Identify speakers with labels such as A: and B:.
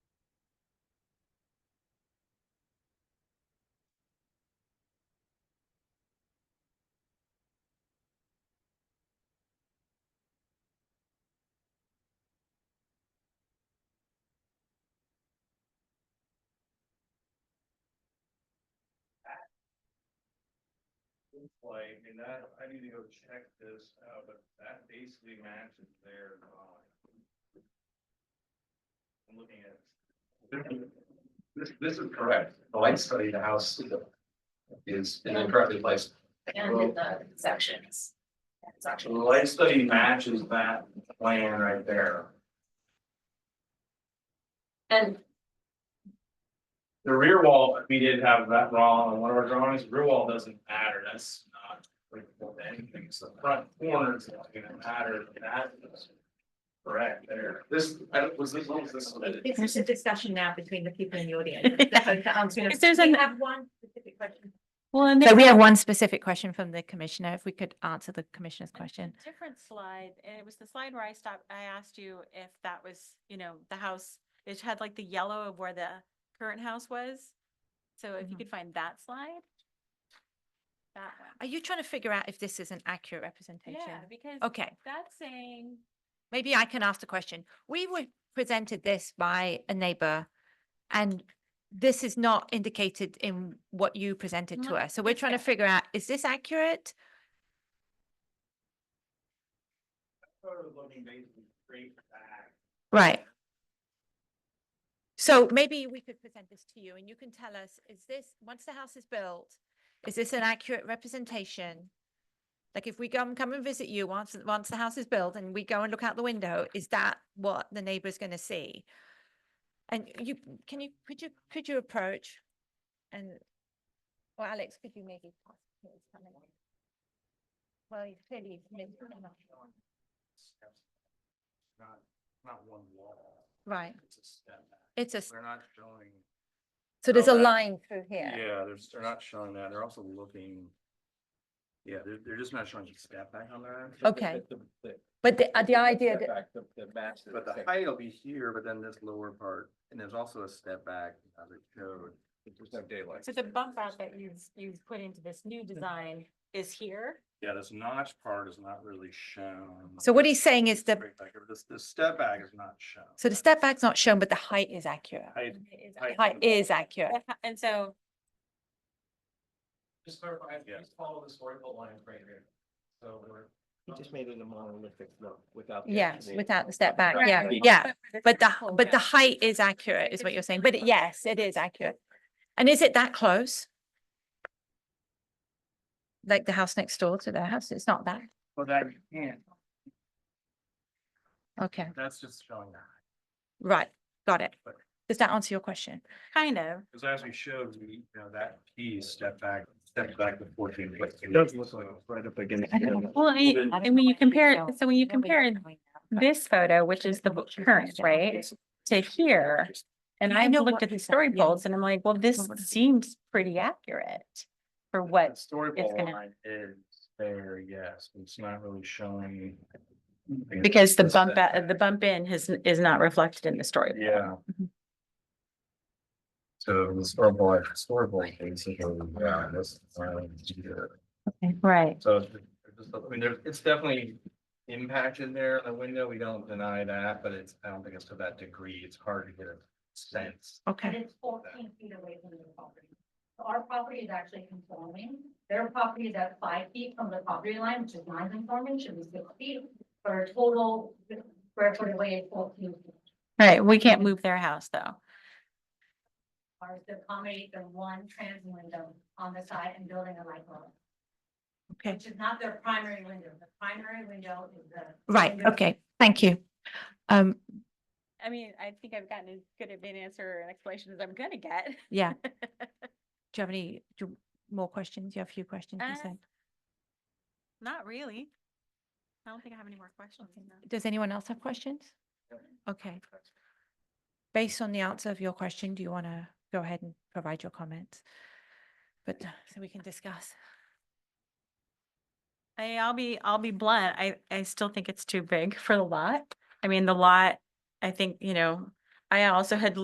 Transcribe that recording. A: like, and that, I need to go check this out, but that basically matches their line. I'm looking at.
B: This, this is correct. The light study, the house is in the correctly placed.
C: and in the sections. It's
A: So
C: actually,
A: the light study matches that plan right there.
C: and
A: The rear wall, we did have that wrong on one of our drawings, rear wall doesn't matter, that's not. applicable to Anything, it's the front corner is not gonna matter, but that is. Correct there.
B: This, I don't- was this, what was this?
D: I think There's a discussion now between the people in the audience.
E: If there's
D: We
E: an-
D: have one specific question.
E: Well, and
D: So
E: there
D: we
E: was
D: have one specific question from the commissioner, if we could answer the commissioner's question.
E: a different slide, and it was the slide where I stopped, I asked you if that was, you know, the house, it had like the yellow of where the current house was. So if you
D: Mhm.
E: could find that slide. That
D: Are you trying to figure out if this is an accurate
E: one,
D: representation?
E: yeah, because
D: Okay,
E: that's saying,
D: maybe I can ask the question. We were presented this by a neighbor and this is not indicated in what you presented to
E: Mhm.
D: us. So we're trying to
E: Okay.
D: figure out, is this accurate?
A: Sort of looking basically straight back.
D: Right. So maybe we could present this to you and you can tell us, is this, once the house is built, is this an accurate representation? Like if we come, come and visit you once, once the house is built and we go and look out the window, is that what the neighbor's gonna see? And you, can you, could you, could you approach? And, well, Alex, could you maybe? pass his camera? Well, you clearly.
A: Not, not one wall.
D: Right,
A: It's a step back.
D: it's a, s-
A: They're not showing.
D: so there's a
A: Oh, that-
D: line through here.
A: Yeah, they're, they're not showing that. They're also looking. Yeah, they're, they're just not showing the step back on that.
D: Okay. But the, uh, the idea that,
A: But the height will be here, but then this lower part, and there's also a step back as it showed. There's no daylight.
E: so the bump out that you've, you've put into this new design is here.
A: Yeah, this notch part is not really shown.
D: so what he's saying is the,
A: Straight back over. This, this step back is not shown.
D: so the step back's not shown, but the height is accurate.
A: Height,
E: and it is
A: Height.
D: Height is accurate.
E: accurate. And so,
B: Just clarify,
A: Yeah.
B: just follow this vertical line right here. So we're.
F: He just made it a monolithic look without. the
D: Yes,
F: actual-
D: without the step back.
E: Right.
D: Yeah,
F: Right.
D: Oh, yeah. But the,
E: circle
D: but the
E: goes.
D: height is accurate is what you're saying. But it- yes, it is accurate. And is it that close? Like the house next door to their house? It's not that.
A: Well, that, yeah,
D: Okay,
A: that's just showing that.
D: right. Got it. Does that answer your question?
E: Kind of,
A: Cause as we showed, we, you know, that piece step back, step back to fourteen. foot.
F: It does look like it's right up against. the-
E: well, I,
A: Then-
E: and when you compare, so when you compare this photo, which is the bo- current, right, to here. And
D: I
E: I've
D: know
E: looked
D: what
E: at the
D: you said,
E: story
D: yeah.
E: bolts and I'm like, well, this
D: what is it?
E: seems pretty accurate for
A: The
E: what,
A: Storyboard
E: gonna-
A: line is there, yes, but it's not really showing.
E: because the
A: This
E: bump,
A: step
E: out- the bump in has, is not reflected in the story. bolt.
A: Yeah. So the storyboard, storyboard basically, yeah, this. um,
E: Right.
A: So it's just, I mean, there's, it's definitely impacted there in the window. We don't deny that, but it's, I don't think it's to that degree. It's hard to get a sense.
D: Okay.
G: And it's fourteen feet away from the property. So our property is actually conforming. Their property is at five feet from the property line, which is non-conforming, should be six feet. For a total square foot away is fourteen feet.
E: Right, we can't move their house though.
G: Ours to accommodate the one trans window on the side and building a light bulb.
D: Okay.
G: Which is not their primary window. The primary window is the.
D: Right.
G: window-
D: Okay. Thank you. Um,
E: I mean, I think I've gotten as good of an answer and explanation as I'm gonna get.
D: yeah. Do you have any, do you- more questions? You have a few questions, you
E: Uh,
D: said?
E: Not really. I don't think I have any more questions. no.
D: Does anyone else have questions? Okay. Based on the answer of your question, do you want to go ahead and provide your comments? But, uh, so we can discuss.
E: I, I'll be, I'll be blunt. I, I still think it's too big for the lot. I mean, the lot, I think, you know, I also had